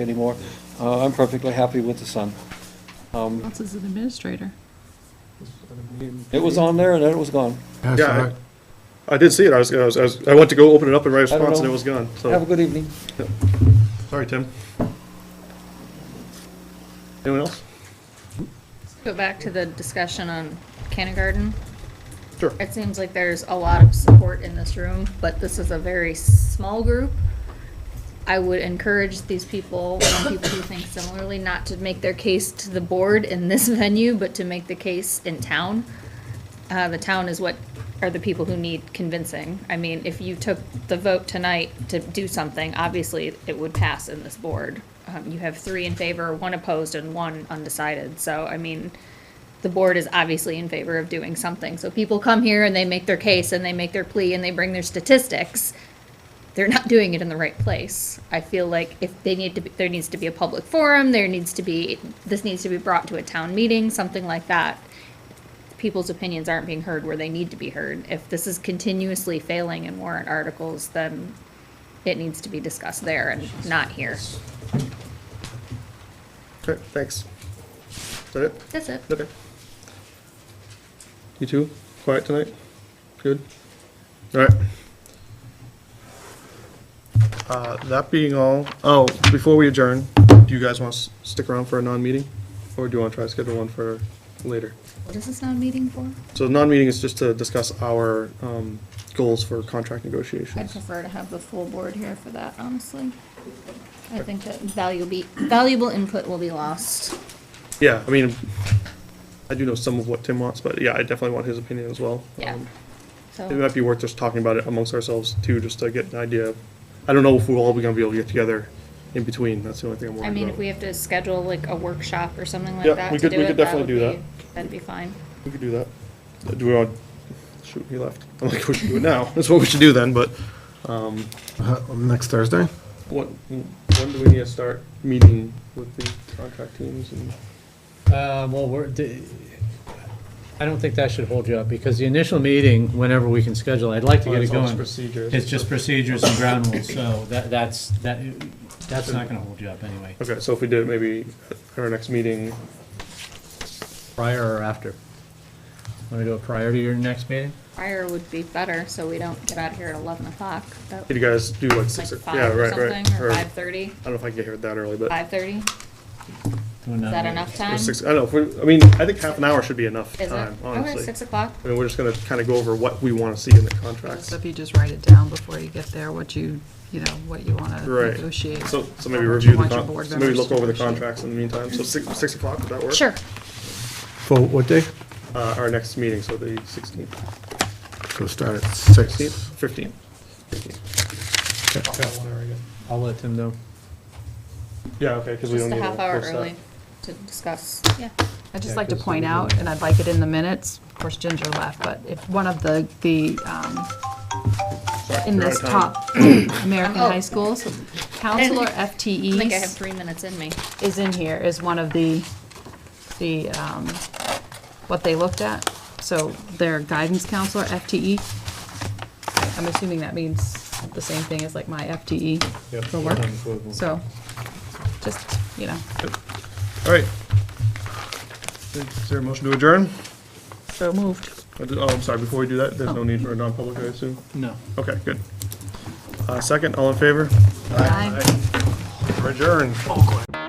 anymore. Uh, I'm perfectly happy with the sun. Um, Else is an administrator. It was on there and then it was gone. That's Yeah, all I- right. I did see it, I was, I was- I was, I went to go open it up and write a I don't response and it know. was gone, Have a so, good evening. sorry, Tim. Anyone else? Go back to the discussion on kindergarten. Sure. It seems like there's a lot of support in this room, but this is a very small group. I would encourage these people and people who think similarly not to make their case to the board in this venue, but to make the case in town. Uh, the town is what are the people who need convincing. I mean, if you took the vote tonight to do something, obviously it would pass in this board. Um, you have three in favor, one opposed, and one undecided. So, I mean, the board is obviously in favor of doing something. So people come here and they make their case and they make their plea and they bring their statistics. They're not doing it in the right place. I feel like if they need to, be, there needs to be a public forum, there needs to be, this needs to be brought to a town meeting, something like that. People's opinions aren't being heard where they need to be heard. If this is continuously failing in warrant articles, then it needs to be discussed there and not here. Okay, thanks. Is that it? That's it. Okay. You too? Quiet tonight? Good? All right. Uh, that being all, oh, before we adjourn, do you guys want to stick around for a non-meeting? Or do you want to try to schedule one for later? What is this non-meeting for? So the non-meeting is just to discuss our um, goals for contract I'd negotiations. prefer to have the full board here for that, honestly. I think that valuable, valuable input will be lost. Yeah, I mean, I do know some of what Tim wants, but yeah, I definitely want his opinion as well. Yeah. Oh. Um, It So, might be worth just talking about it amongst ourselves too, just to get an idea. of- I don't know if we're all gonna be able to get together in between, that's the only thing I'm worried I about. mean, if we have to schedule like a workshop or something Yeah, like that we to could- do we it, could that definitely would do that. be- That'd be fine. We could do that. Uh, Do we want, shoot, he left. I'm like, we should do it now. That's what we should do then, but Uh, Next Thursday? what, when do we need to start meeting with the contract teams and? Uh, Well, we're, d- I don't think that should hold you up, because the initial meeting, whenever we can schedule, I'd like to get it Well, it's going. procedures. It's just procedures and ground rules, so that, that's, that, that's not gonna hold you up anyway, Okay, so if we did it maybe at our next meeting, prior or after. Want to do it prior to your next meeting? Fire would be better, so we don't get out of here at eleven o'clock. That- did you guys do like Like six? or- yeah, five or right, right, something, or or- five thirty, I don't know if I can get here that early, but. five thirty? Is Is that enough time? Uh, or Is six- I don't know, if we- I mean, I think half an hour should be enough it? time, Okay, honestly. six o'clock? I mean, we're just gonna kind of go over what we want to see in the contracts. So if you just write it down before you get there, what you, you know, what you want to Right. negotiate. So, so maybe Or what you review the, want your con- board so maybe members look to over the negotiate. contracts in the meantime, so six, six o'clock, would that work? Sure. For what day? Uh, our next meeting, so the sixteenth, So start at six. sixteenth, fifteenth. I'll let Tim know. Yeah, okay, because we don't Just need a to. half hour post that. early to discuss, yeah. Yeah, I'd just like to 'cause point we do out, that. and I'd like it in the minutes, of course Ginger left, but if one of the, the, um, Sorry, in we're out this of time. top American Oh. high schools, counselor E FTEs. I think I have three minutes in me. is in here is one of the, the, um, what they looked at. So their guidance counselor, FTE. I'm assuming that means the same thing as like my FTE for work. So, just, you know, All right. Is there a motion to adjourn? so moved. I did- Oh, I'm sorry, before we do that, there's no Oh. need for a non-public, I assume? No. Okay, good. Uh, second, all in favor? Aye. We're adjourned.